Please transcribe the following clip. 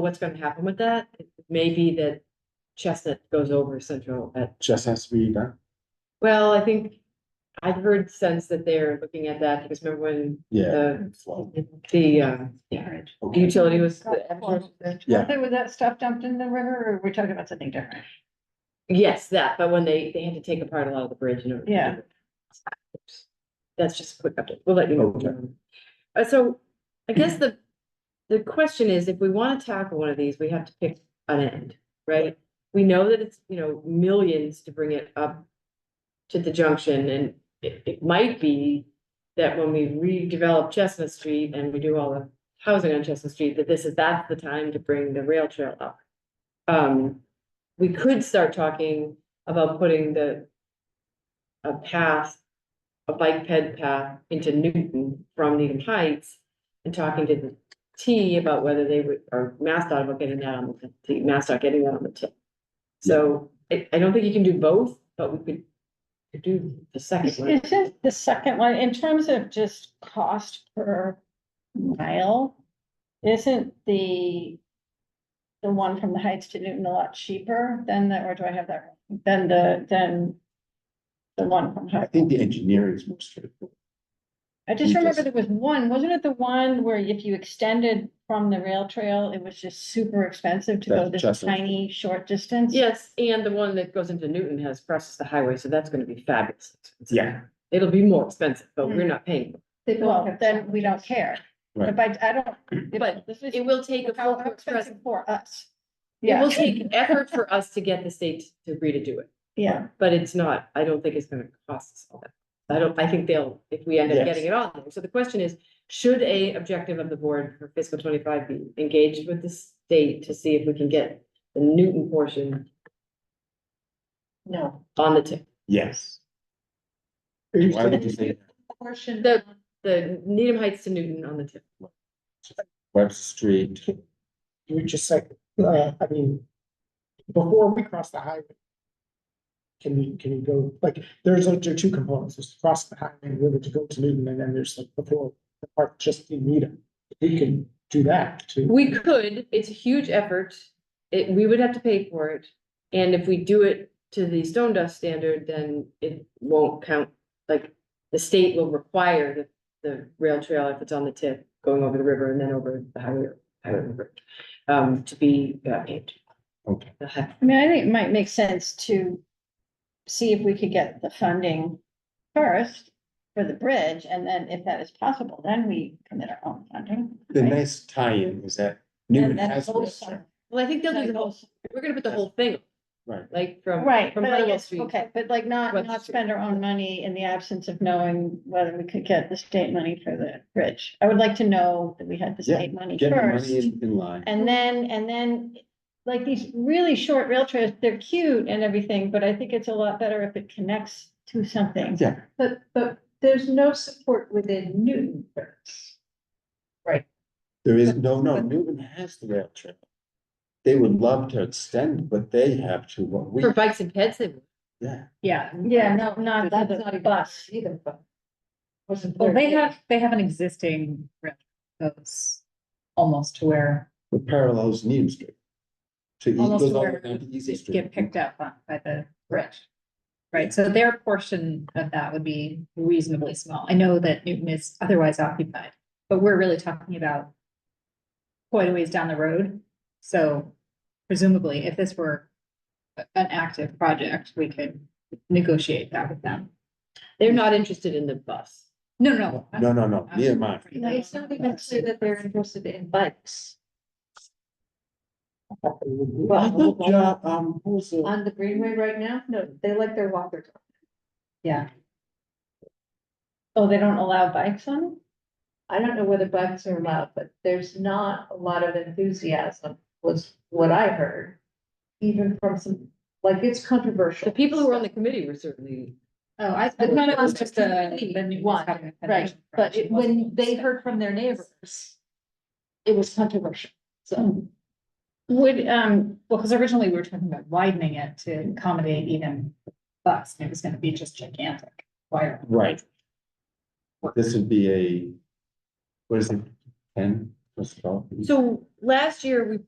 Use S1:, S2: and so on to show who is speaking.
S1: what's gonna happen with that. Maybe that Chestnut goes over Central at,
S2: just has to be done.
S1: well, I think I've heard sense that they're looking at that because remember when
S2: Yeah.
S1: the,
S2: Flow.
S1: the, uh, yeah, the
S2: Okay.
S1: utility was.
S2: Yeah.
S3: Wasn't it with that stuff dumped in the river, or we're talking about something different?
S1: Yes, that, but when they, they had to take apart a lot of the bridge in order. to do
S3: Yeah.
S1: it. That's just a quick update. We'll let you
S2: Okay.
S1: know. Uh, so I guess the, the question is, if we wanna tackle one of these, we have to pick an end, right? We know that it's, you know, millions to bring it up to the junction and it, it might be that when we redevelop Chestnut Street and we do all the housing on Chestnut Street, that this is, that's the time to bring the rail trail up. Um, we could start talking about putting the a path, a bike ped path into Newton from Needham Heights and talking to the T about whether they would, or MassDOT about getting that on the, the MassDOT getting that on the tip. So I, I don't think you can do both, but we could could do the second one.
S3: Isn't the second one, in terms of just cost per mile, isn't the the one from the Heights to Newton a lot cheaper than the, or do I have that, wrong? than the, than the one from
S2: I
S3: Heights?
S2: think the engineering is more straightforward.
S3: I just
S2: You
S3: remember
S2: just-
S3: there was one, wasn't it the one where if you extended from the rail trail, it was just super expensive to go
S2: That's
S3: this
S2: just-
S3: tiny, short distance?
S1: Yes, and the one that goes into Newton has crosses the highway, so that's gonna be fabulous.
S2: Yeah.
S1: It'll be more expensive, but we're not paying.
S3: Well, then we don't care.
S2: Right.
S3: But I don't.
S1: But
S3: this is-
S1: It will take a
S3: How
S1: full express
S3: expensive for us.
S1: It
S3: Yeah,
S1: will take effort for us to get the state to agree to do it,
S3: yeah,
S1: but it's not, I don't think it's gonna cost us all that. I don't, I think they'll, if we end up
S2: Yes.
S1: getting it on, there. so the question is, should a objective of the board for fiscal twenty-five be engaged with the state to see if we can get the Newton portion
S3: no.
S1: on the tip?
S2: Yes. Why would you say, that?
S3: Portion.
S1: The, the Needham Heights to Newton on the tip,
S2: Webster Street,
S4: you just say, uh, I mean, before we cross the highway. Can we, can you go, like, there's, like, there are two components, there's to cross the highway and river to go to Newton, and then there's like before, the part just in Needham. We can do that too.
S1: we could, it's a huge effort, it, we would have to pay for it. And if we do it to the stone dust standard, then it won't count, like, the state will require the, the rail trail if it's on the tip, going over the river and then over the highway, highway river, um, to be uh, paved.
S2: okay,
S1: They'll have-
S3: I mean, I think it might make sense to see if we could get the funding first for the bridge, and then if that is possible, then we commit our own funding.
S2: the
S3: right?
S2: nice tie-in was that Newman
S3: And then
S2: has.
S3: also-
S1: Well, I think they'll do the whole,
S3: also-
S1: we're gonna put the whole thing,
S2: Right.
S1: like, from,
S3: Right,
S1: from
S3: but I
S1: Hartwell
S3: guess,
S1: Street.
S3: okay, but like not,
S1: West
S3: not
S1: Street.
S3: spend our own money in the absence of knowing whether we could get the state money for the bridge. I would like to know that we had the
S2: Yeah,
S3: state money
S2: Get the money
S3: first.
S2: in, in line.
S3: And then, and then, like these really short rail trails, they're cute and everything, but I think it's a lot better if it connects to something.
S2: Yeah,
S5: But, but there's no support within Newton for this.
S2: there is, no, no, Newman has the rail trail. They would love to extend what they have to what we,
S1: For bikes and pets, they,
S2: yeah.
S3: Yeah, yeah, no, not
S5: That's
S3: the
S5: not
S3: the
S5: a
S3: bus.
S5: bus either, but. Wasn't.
S6: Well, they
S5: there.
S6: have, they have an existing route that goes almost to where,
S2: The parallels Needham Street. To, it
S6: almost
S2: goes
S6: to
S2: all the way
S6: where
S2: down to Easy
S6: you
S2: Street.
S6: get picked up on by the bridge.
S2: Yeah.
S6: Right, so their portion of that would be reasonably small. I know that Newton is otherwise occupied, but we're really talking about quite a ways down the road, so presumably if this were a- an active project, we could negotiate that with them.
S1: they're not interested in the bus.
S6: No, no.
S2: No, no, no,
S6: I'm-
S2: near mine.
S5: No, It's not even clear that they're interested in bikes
S2: I thought, John, um, who was the,
S5: on the Greenway right now. No, they like their walkers.
S6: Yeah,
S3: Oh, they don't allow bikes on? it?
S5: I don't know whether bikes are allowed, but there's not a lot of enthusiasm was what I heard. Even from some, like, it's controversial.
S1: The people who were on the committee were certainly
S6: oh, I, I thought it was just a, the Newton's
S5: One,
S6: having a
S5: Right, but it- when they heard from their neighbors, it was controversial, so.
S6: Would, um, well, because originally we were talking about widening it to accommodate even bus, and it was gonna be just gigantic. Why?
S2: right. This would be a, what is it, ten, what's it called?
S1: So last year, we